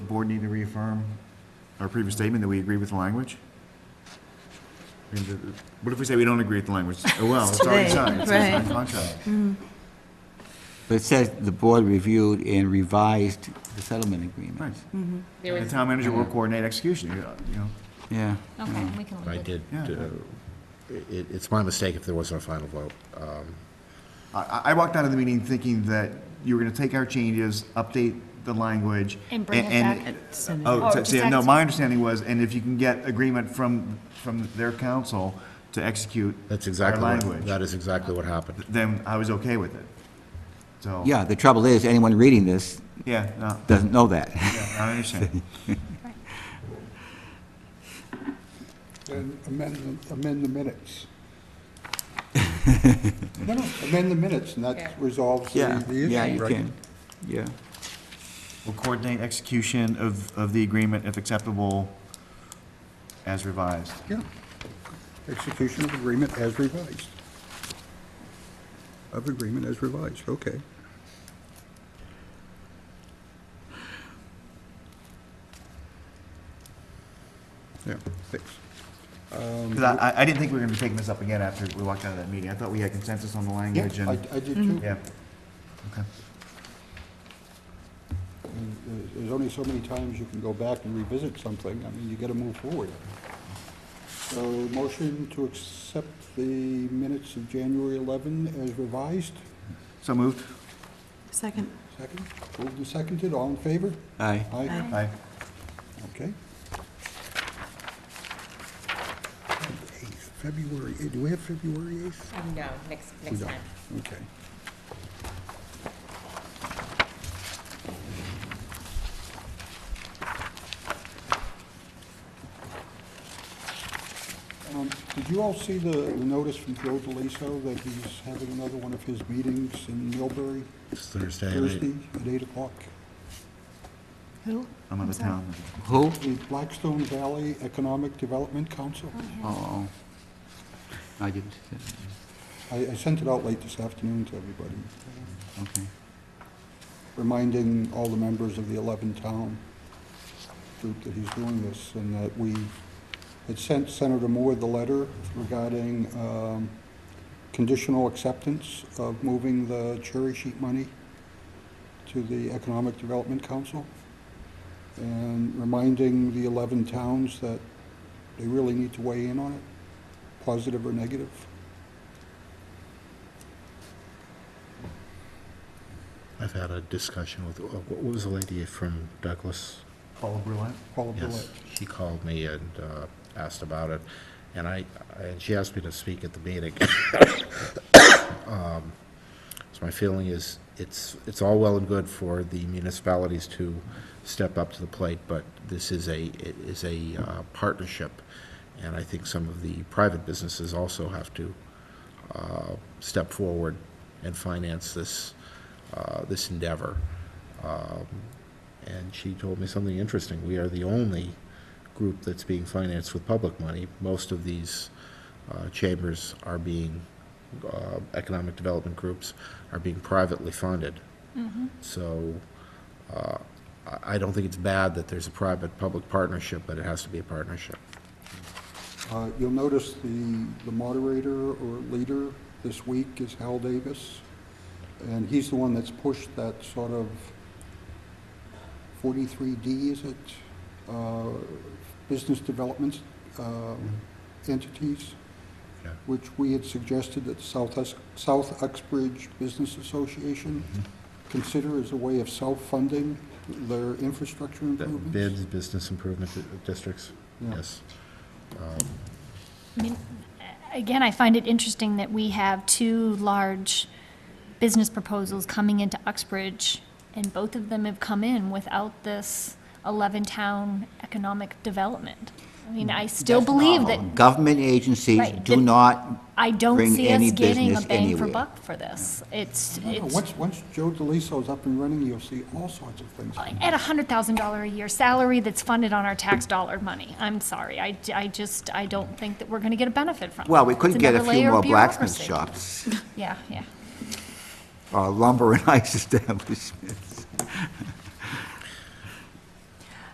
board need to reaffirm our previous statement that we agree with the language? I mean, the- What if we say we don't agree with the language? Oh, well, it's already Today, signed, it's already signed right. contract. Mm-hmm. But it says the board reviewed and revised the settlement agreement. There The was, town manager Mm-hmm. will coordinate execution, you know. Yeah. okay, Mm. we can I leave it. did, Yeah. uh, it, it's my mistake if there wasn't a final vote. Um, I- I, I walked out of the meeting thinking that you were gonna take our changes, update the language. And bring it and- back at Oh, Or to- just yeah, no, act- my understanding was, and if you can get agreement from, from their council to execute That's our exactly, what- that language, is exactly what happened. then I was okay with it. So. Yeah, the trouble is, anyone reading this Yeah, no, doesn't know that. yeah, I understand. And amend, the- amend the minutes. No, no, amend the minutes, and Yeah. that resolves Yeah, the the yeah, issue, you right? can, yeah. We'll coordinate execution of, of the agreement if acceptable as revised. Yeah. Execution of agreement as revised. Of agreement as revised, okay. Yeah, thanks. Because I, I- I didn't think we were gonna be taking this up again after we walked out of that meeting. I thought we had consensus on the Yeah, language I, and, I did too. yeah. Okay. And, uh, There's only so many times you can go back and revisit something, I mean, you gotta move forward. So, motion to accept the minutes of January 11 as revised, So moved? Second. second, moved and seconded, all in favor? Aye. Aye, Aye. okay. Eighth, February, eh, do we have February 8th? Um, No, next, We next don't, time. okay. Um, Did you all see the the notice from Joe DeLiso that he's having another one of his meetings in Millbury It's Thursday. and it- Thursday at 8 o'clock? Who? I'm out of sorry. town. Who? The Blackstone Valley Economic Development Council? Oh, I didn't, see I I sent it out late this afternoon to everybody, that. okay. reminding all the members of the 11-town group that he's doing this, and that we had sent Senator Moore the letter regarding um, conditional acceptance of moving the cherry sheet money to the Economic Development Council, and reminding the 11 towns that they really need to weigh in on it, positive or negative. I've had a discussion with, oh, what was the lady from Douglas? Paula Brulette? Paula Yes, Bullock. she called me and uh, asked about it, and I, I- and she asked me to speak at the meeting. Um, So my feeling is, it's, it's all well and good for the municipalities to step up to the plate, but this is a, it is a uh, partnership, and I think some of the private businesses also have to uh, step forward and finance this, uh, this endeavor. Um, and she told me something interesting. We are the only group that's being financed with public money. Most of these uh, chambers are being, uh, economic development groups are being privately funded. So uh, I I don't think it's bad that there's a private-public partnership, but it has to be a partnership. Uh, You'll notice the, the moderator or leader this week is Hal Davis, and he's the one that's pushed that sort of 43D, is it? Uh, Business development um, entities, Yeah. which we had suggested that South, Ex- South Uxbridge Business Association consider as a way of self-funding their infrastructure The improvements. Bids, business improvement di- districts, Yeah. yes. I mean, again, I find it interesting that we have two large business proposals coming into Uxbridge, and both of them have come in without this 11-town economic development. I mean, I still believe that, Government agencies Right, do the- not, I don't Bring see us any getting a business bang for anywhere. buck for this. It's, No, no, it's, Once, once Joe DeLiso's up and running, you'll see all sorts of things. at a $100,000 a year salary that's funded on our tax dollar money. I'm sorry, I, I just, I don't think that we're going to get a benefit from it. well, we could It's get a another few layer of more blacksmith shops, bureaucracy. uh, Yeah, yeah. or lumber and ice establishments.